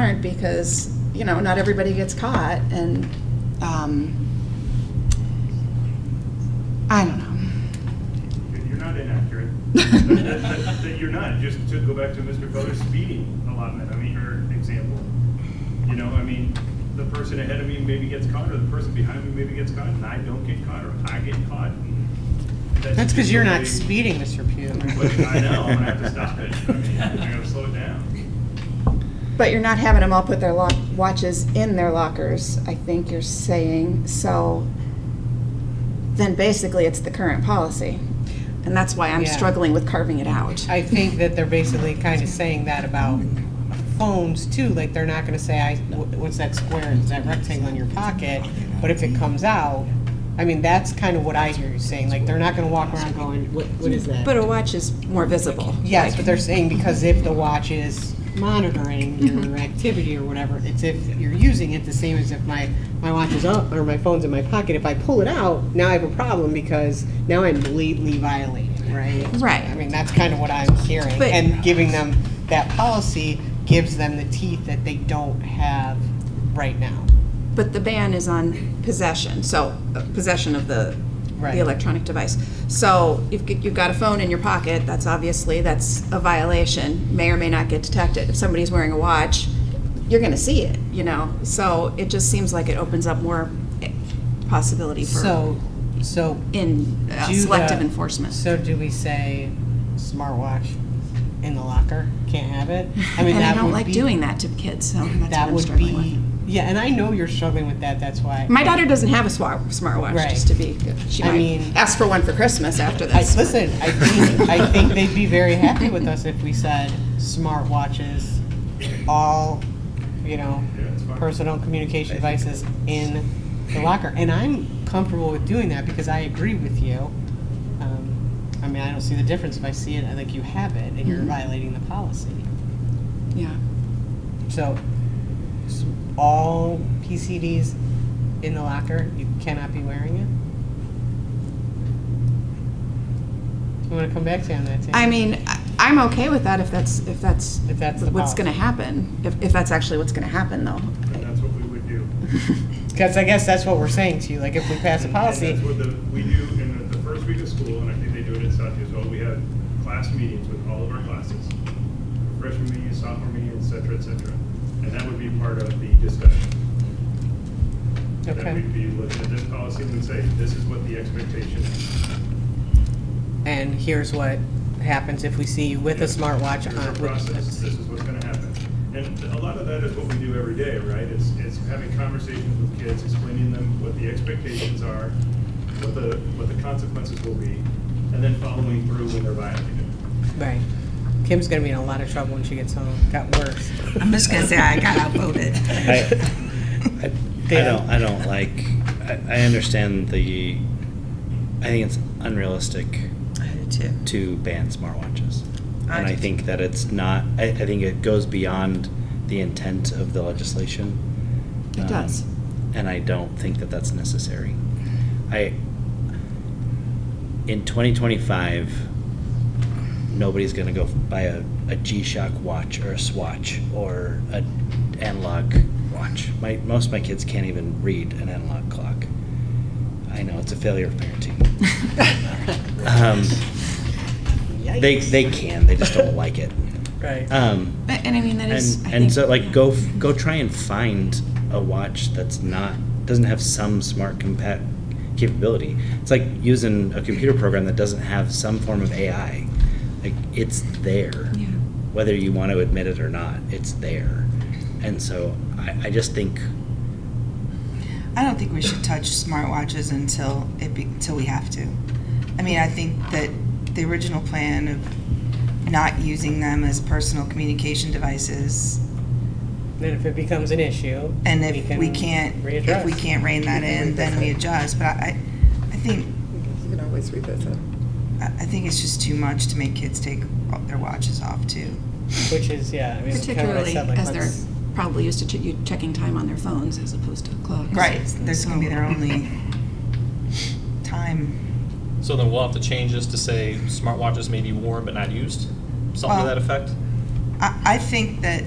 warrant because, you know, not everybody gets caught and, um, I don't know. You're not inaccurate. That- that You're not, just to go back to Mr. Feller's speeding allotment, I mean, or example. You know, I mean, the person ahead of me maybe gets caught, or the person behind me maybe gets caught, and I don't get caught, or I get caught. That's because you're not just the way- speeding, Mr. But Pugh. I know, and I have to stop it. I mean, I gotta slow it down. But you're not having them all put their lock, watches in their lockers, I think you're saying, so then basically it's the current policy. And that's why I'm Yeah. struggling with carving it out. I think that they're basically kind of saying that about phones too, like they're not gonna say, I, wh- what's that square, is that rectangle in your pocket? But if it comes out, I mean, that's kind of what I hear you saying, like, they're not gonna walk around going, what, what is that? But a watch is more visible. Yes, but they're saying because if the watch is monitoring Mm-hmm. your activity or whatever, it's if you're using it, the same as if my, my watch is up or my phone's in my pocket, if I pull it out, now I have a problem because now I'm blatantly violating, right? Right. I mean, that's kind of what I'm hearing. But- And giving them, that policy gives them the teeth that they don't have right now. But the ban is on possession, so uh, possession of the, Right. the electronic device. So you've, g- you've got a phone in your pocket, that's obviously, that's a violation, may or may not get detected. If somebody's wearing a watch, you're gonna see it, you know? So it just seems like it opens up more eh, possibility for, So, so in uh, do selective the- enforcement. So do we say smartwatch in the locker, can't have it? I mean, And I that don't would like be- doing that to kids, so that's what That I'm would struggling be, with. yeah, and I know you're struggling with that, that's why. My daughter doesn't have a swa- smartwatch, Right. just to be, she I mean- might ask for one for Christmas after I, this. listen, I think, I think they'd be very happy with us if we said smartwatches, all, you know, Yeah, it's fine. personal communication devices in the locker. And I'm comfortable with doing that because I agree with you. Um, I mean, I don't see the difference if I see it, I think you have it and you're Mhm. violating the policy. Yeah. So, s- all PCDs in the locker, you cannot be wearing it? I'm gonna come back to you on that, too. I mean, I- I'm okay with that if that's, if that's If that's the what's policy. going to happen, if, if that's actually what's going to happen, though. And that's what we would do. Because I guess that's what we're saying to you, like, if we pass a And- policy, And that's what the, we do in the first week of school, and I think they do it at South as well, we have class meetings with all of our classes. Freshman meeting, sophomore meeting, et cetera, et cetera. And that would be part of the discussion. That okay. we'd be looking at this policy and say, this is what the expectation is. And here's what happens if we see you with a smartwatch Here's our on. process, this is what's gonna happen. And a lot of that is what we do every day, right? It's, it's having conversations with kids, explaining them what the expectations are, what the, what the consequences will be, and then following through when they're violated. Right. Kim's gonna be in a lot of trouble when she gets home, got worse. I'm just gonna say I got outvoted. I, I I don't, I don't like, I, I understand the, I think it's unrealistic I did too. to ban smartwatches. I And I do too. think that it's not, I, I think it goes beyond the intent of the legislation. It Um, does. And I don't think that that's necessary. I, in twenty twenty-five, nobody's gonna go buy a, a G-Shock watch or a Swatch or a analog watch. My, most of my kids can't even read an analog clock. I know, it's a failure of parenting. Um, they, they can, they just don't like it. Right. Um, But- And I mean, that is, I and, think. and so like yeah. go f- go try and find a watch that's not doesn't have some smart compat capability it's like using a computer program that doesn't have some form of ai like it's there Yeah. whether you want to admit it or not it's there and so i, I just think I don't think we should touch smartwatches until it be, until we have to. I mean, I think that the original plan of not using them as personal communication devices, Then if it becomes an issue. and if we can't, if we readdress. can't rein that in, then we adjust. But I, I think, You can always revisit. I I think it's just too much to make kids take their watches off too. Which is, yeah, I mean, it's kind of what I Particularly said, like, as they're let's- probably used to che- you checking time on their phones as opposed to clocks. Right, there's gonna be their only time. So then we'll have to change this to say smartwatches may be worn but not used, something Well- to that effect? I, I think that